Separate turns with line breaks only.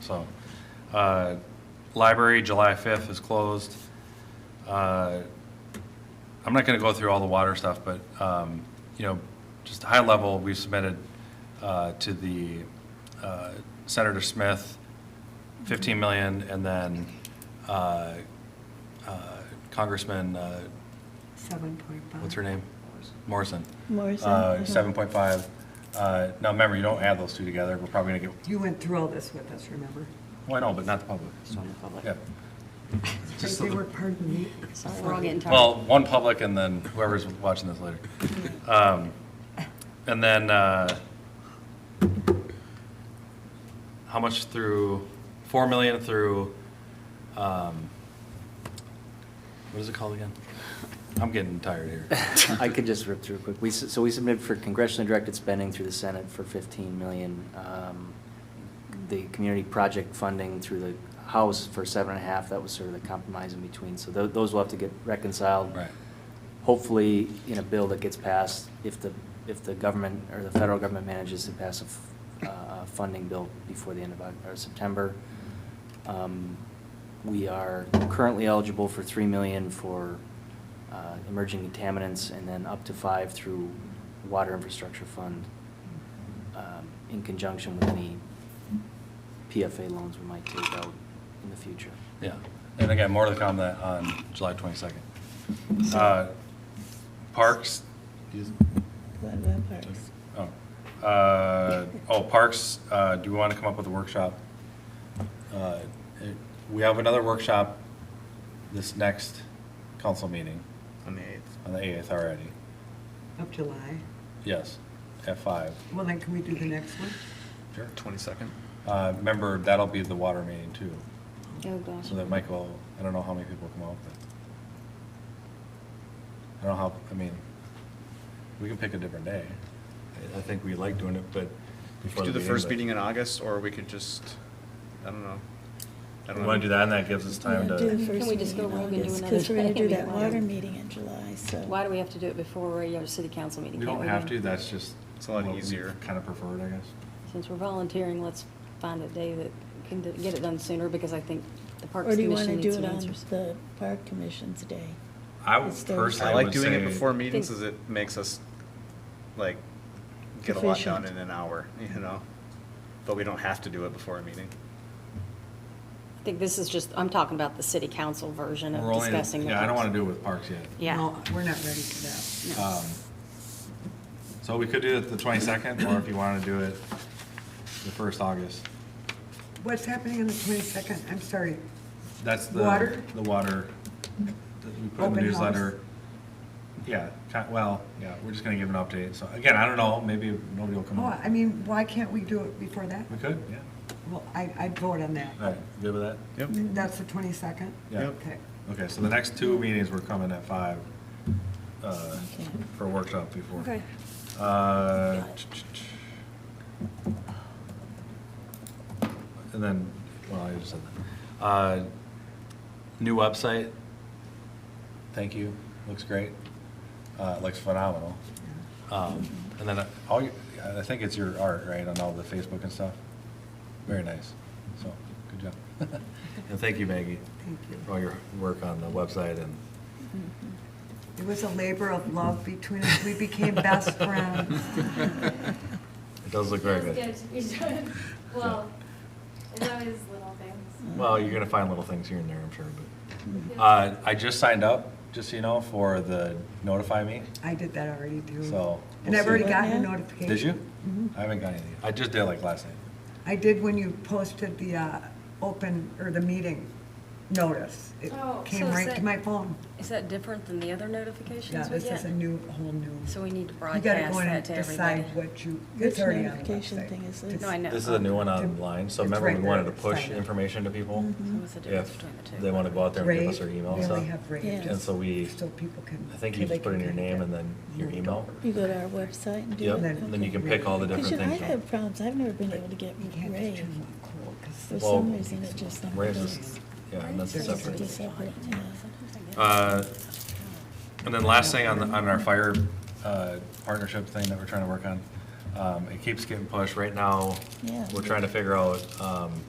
So, uh, library, July 5th is closed. Uh, I'm not going to go through all the water stuff, but, um, you know, just high level, we submitted uh, to the uh, Senator Smith, 15 million, and then uh, uh, Congressman, uh,
Seven point five.
what's her name? Morrison.
Morrison,
Uh,
uh-huh.
7.5. Uh, Now, remember, you don't add those two together, we're probably going to get,
You went through all this with us, remember?
well, I know, but not the public.
Just on the public.
Yeah. Just
They
the-
were, pardon me.
Sorry, we're all getting tired.
Well, one public and then whoever's watching this later. Um, And then, uh, how much through, 4 million through, um, what is it called again? I'm getting tired here.
I could just rip through quick. We, s- so we submitted for congressionally directed spending through the Senate for 15 million. um, The community project funding through the House for seven and a half, that was sort of the compromise in between. So tho- those will have to get reconciled.
Right.
Hopefully, in a bill that gets passed, if the, if the government or the federal government manages to pass a, f- uh, a funding bill before the end of, Oc- or September. Um, We are currently eligible for three million for uh, emerging contaminants, and then up to five through Water Infrastructure Fund um, in conjunction with any PFA loans we might take out in the future.
Yeah, and again, more to come that on July 22nd. Uh, Parks,
What about parks?
oh, uh, oh, Parks, uh, do we want to come up with a workshop? Uh, it- We have another workshop this next council meeting
On the 8th.
on the 8th already.
Of July.
Yes, at 5.
Well, then can we do the next one?
Sure.
22nd.
Uh, Remember, that'll be the water meeting too,
Oh, gosh.
so that Michael, I don't know how many people come out, but I don't know how, I mean, we can pick a different day. I- I think we like doing it, but.
We
before
could do the first
but-
meeting in August, or we could just, I don't know. I
We
don't
want
know.
to do that, and that gives us time
Yeah, do the
to,
Can we
first
just go
meeting in
rogue and do
August,
another
Cause we're gonna
day
do
and
that
meet
water
one?
meeting in July, so.
Why do we have to do it before a regular city council meeting?
we
Can't
don't have to, that's just.
It's a lot easier.
Kind of preferred, I guess.
Since we're volunteering, let's find a day that can d- get it done sooner, because I think the Parks
Or do you wanna
Commission
do
needs some
it on
answers.
the park commission's day?
I would
Instead of-
personally
I like doing it before
me.
meetings,
Think-
as it makes us, like, get a lot done
Efficient.
in an hour, you know? But we don't have to do it before a meeting.
I think this is just, I'm talking about the city council version
We're
of
only,
discussing. the
yeah, I don't
parks.
want to do it with parks yet.
Yeah.
No, we're not ready for that.
No.
Um, So we could do it the 22nd, or if you want to do it the first August.
What's happening on the twenty-second? I'm sorry.
That's the.
Water?
The water. that We put in the
Open house.
newsletter. Yeah, ki- well, yeah, we're just gonna give an update. So again, I don't know, maybe nobody will come
Oh,
up.
I mean, why can't we do it before that?
We could, yeah.
Well, I, I'd vote on that. Mm,
All right, you good with that?
Yep.
That's the twenty-second?
Yeah. Yep.
Okay.
Okay, so the next two meetings, we're coming at five, uh,
Okay.
for a workshop before.
Okay.
Uh, And then, well, I just said that. Uh, New website. Thank you. Looks great. Uh, it looks phenomenal. Um, and then uh, all, your- I think it's your art, right, on all the Facebook and stuff? Very nice. So, good job. And thank you, Maggie.
Thank you.
For all your work on the website and
Mm-hmm.
It was a labor of love between us. We became best friends.
it does look very
Feels
good.
to be done. Well, there's always little things.
Well, you're gonna find little things here and there, I'm sure, but.
Mhm.
Uh, I just signed up, just so you know, for the notify me.
I did that already too.
So,
And
we'll
I've already
see.
gotten a
Yeah.
notification.
Did you?
Mm-hmm.
I haven't got anything. I just did like last night.
I did when you posted the uh, open, or the meeting notice. It
Oh,
came
so is
right to
that-
my phone.
Is that different than the other
Yeah,
notifications we
this is
get?
a new, whole new.
So we need to
You gotta
broadcast
go in
that
and
to everybody.
decide what you,
Which
it's already on the
notification
website.
thing is this?
No, I know.
This is a new one online, so
It's
remember we
right there.
wanted to push
Sign up. Mm-hmm.
information to people?
So what's the difference
If
between the two?
they wanna go out there and give us their
Rave,
email
we
and
only
stuff.
have rave,
Yeah.
And so we,
So people can.
I think
so
you
they
just put in
can
your
kinda
name
get
and then your
moved
email.
over.
You go to our website and do
Yep,
it?
and then you
Okay.
can pick all the
Because
different
I
things.
have problems, I've never been able to get
You can't just
Rave.
turn them on cold, 'cause
For
it's-
Well,
some reason, it just never
Raves
does.
is, yeah, and that's
It's just
separate.
a separate, yeah.
Uh, And then last thing on, the- on our fire uh, partnership thing that we're trying to work on, um, it keeps getting pushed. Right now,
Yeah.
we're trying to figure out um,